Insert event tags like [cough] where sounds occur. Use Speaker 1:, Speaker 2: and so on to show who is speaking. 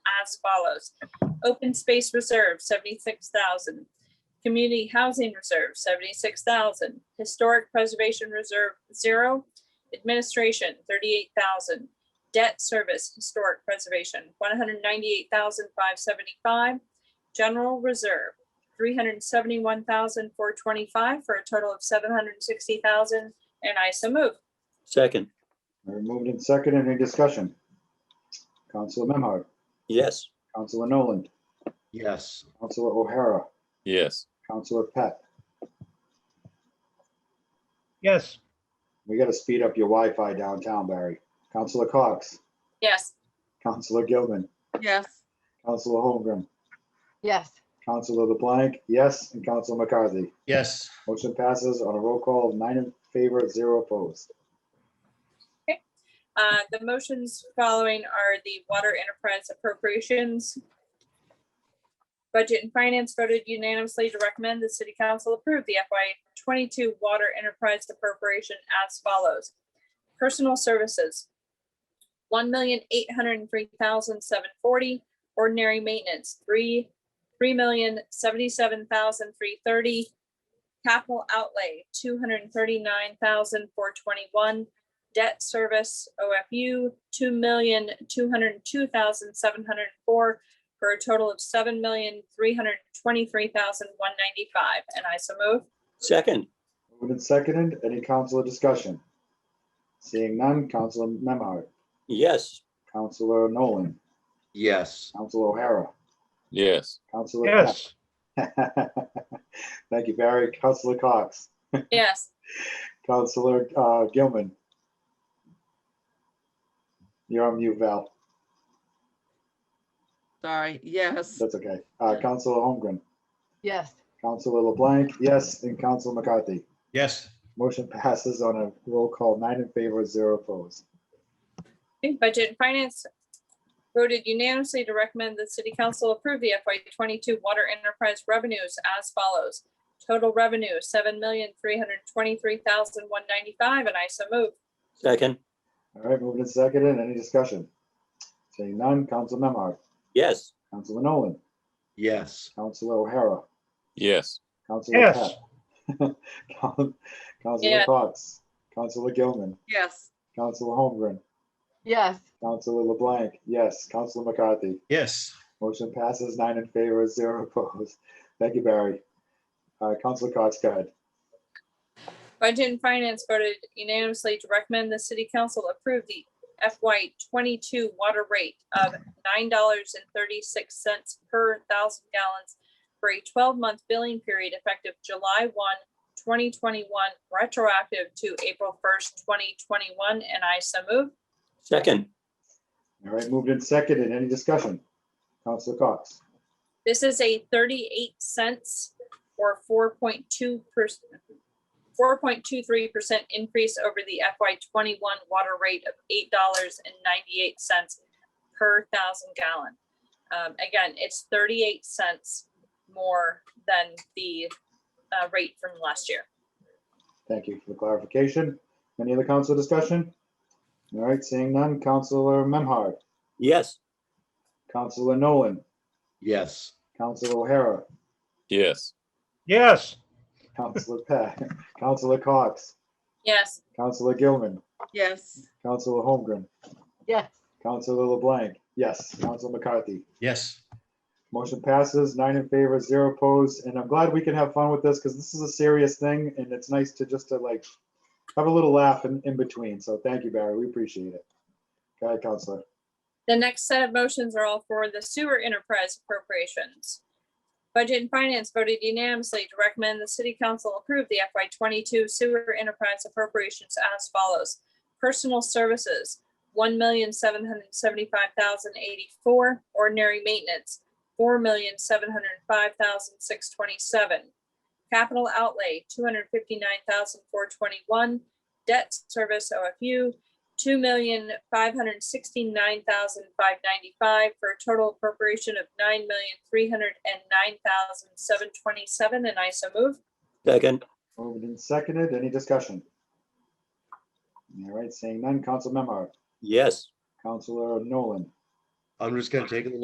Speaker 1: as follows. Open space reserve, seventy-six thousand. Community housing reserve, seventy-six thousand. Historic preservation reserve, zero. Administration, thirty-eight thousand. Debt service, historic preservation, one hundred ninety-eight thousand five seventy-five. General reserve, three hundred seventy-one thousand four twenty-five for a total of seven hundred sixty thousand, and I so move.
Speaker 2: Second,
Speaker 3: We're moved in second. Any discussion? Counselor Memhard,
Speaker 2: yes.
Speaker 3: Counselor Nolan,
Speaker 4: yes,
Speaker 3: Counselor O'Hara,
Speaker 5: yes,
Speaker 3: Counselor Pat.
Speaker 6: yes,
Speaker 3: We got to speed up your Wi-Fi downtown, Barry. Counselor Cox,
Speaker 1: Yes,
Speaker 3: Counselor Gilman,
Speaker 7: yes,
Speaker 3: Counselor Holmgren,
Speaker 8: yes,
Speaker 3: Counselor LeBlanc, yes, and Counselor McCarthy.
Speaker 4: yes,
Speaker 3: Motion passes on a roll call of nine in favor, zero opposed.
Speaker 1: uh, the motions following are the water enterprise appropriations. Budget and Finance voted unanimously to recommend the City Council approve the FY twenty-two water enterprise appropriation as follows. Personal Services, one million eight hundred and three thousand seven forty. Ordinary Maintenance, three, three million seventy-seven thousand three thirty. Capital Outlay, two hundred and thirty-nine thousand four twenty-one debt service OFU, two million, two hundred and two thousand, seven hundred and four, for a total of seven million, three hundred and twenty-three thousand, one ninety-five, and I so move.
Speaker 2: Second,
Speaker 3: Moved and seconded. Any counselor discussion? Seeing none, Counselor Memhard,
Speaker 2: yes.
Speaker 3: Counselor Nolan,
Speaker 4: yes,
Speaker 3: Counselor O'Hara,
Speaker 5: yes,
Speaker 3: Counselor. Pat.
Speaker 6: yes,
Speaker 3: [laughs] Thank you, Barry. Counselor Cox,
Speaker 1: Yes,
Speaker 3: Counselor uh, Gilman. You're on mute, Val.
Speaker 7: sorry, yes,
Speaker 3: That's okay. Uh, Counselor Holmgren,
Speaker 8: yes,
Speaker 3: Counselor LeBlanc, yes, and Counselor McCarthy.
Speaker 4: yes,
Speaker 3: Motion passes on a roll call, nine in favor, zero opposed.
Speaker 1: Okay, Budget and Finance voted unanimously to recommend the City Council approve the FY twenty-two water enterprise revenues as follows. Total revenue, seven million, three hundred and twenty-three thousand, one ninety-five, and I so move.
Speaker 2: Second,
Speaker 3: All right, moving to second and any discussion? Seeing none, Counselor Memard,
Speaker 2: yes.
Speaker 3: Counselor Nolan,
Speaker 4: yes,
Speaker 3: Counselor O'Hara,
Speaker 5: yes,
Speaker 3: Counselor
Speaker 6: yes,
Speaker 3: Pat. [laughs] Coun- Counselor
Speaker 1: Yeah.
Speaker 3: Cox, Counselor Gilman,
Speaker 7: yes,
Speaker 3: Counselor Holmgren,
Speaker 8: yes,
Speaker 3: Counselor LeBlanc, yes. Counselor McCarthy,
Speaker 4: yes,
Speaker 3: motion passes nine in favor, zero [laughs] opposed. Thank you, Barry. Uh, Counselor Cox, go ahead.
Speaker 1: Budget and Finance voted unanimously to recommend the city council approve the FY twenty-two water rate of nine dollars and thirty-six cents per thousand gallons for a twelve-month billing period effective July 1, 2021, retroactive to April first, twenty twenty-one, and I so move.
Speaker 2: Second,
Speaker 3: All right, moved in second and any discussion? Counselor Cox,
Speaker 1: This is a thirty-eight cents or four point two percent, four point two three percent increase over the FY twenty-one water rate of eight dollars and ninety-eight cents per thousand gallon. Um, again, it's thirty-eight cents more than the, uh, rate from last year.
Speaker 3: thank you for the clarification. Any other council discussion? All right, seeing none, Counselor Memhard,
Speaker 2: yes.
Speaker 3: Counselor Nolan,
Speaker 4: yes,
Speaker 3: Counselor O'Hara,
Speaker 5: yes,
Speaker 6: yes,
Speaker 3: Counselor [laughs] Pat, Counselor Cox,
Speaker 1: Yes,
Speaker 3: Counselor Gilman,
Speaker 7: yes,
Speaker 3: Counselor Holmgren,
Speaker 8: yes,
Speaker 3: Counselor LeBlanc, yes, Counselor McCarthy.
Speaker 4: yes,
Speaker 3: Motion passes, nine in favor, zero opposed, and I'm glad we can have fun with this because this is a serious thing and it's nice to just to like have a little laugh in, in between. So thank you, Barry. We appreciate it. Go ahead, Counselor.
Speaker 1: the next set of motions are all for the sewer enterprise appropriations. Budget and Finance voted unanimously to recommend the city council approve the FY twenty-two sewer enterprise appropriations as follows. Personal services, one million seven hundred seventy-five thousand eighty-four. Ordinary maintenance, four million seven hundred five thousand six twenty-seven. Capital outlay, two hundred fifty-nine thousand four twenty-one. Debt service OFU, two million five hundred sixty-nine thousand five ninety-five for a total appropriation of nine million three hundred and nine thousand seven twenty-seven, and I so move.
Speaker 2: Second,
Speaker 3: Moved and seconded. Any discussion? All right, seeing none, Council Memard,
Speaker 2: yes.
Speaker 3: Counselor Nolan,
Speaker 4: I'm just gonna take a little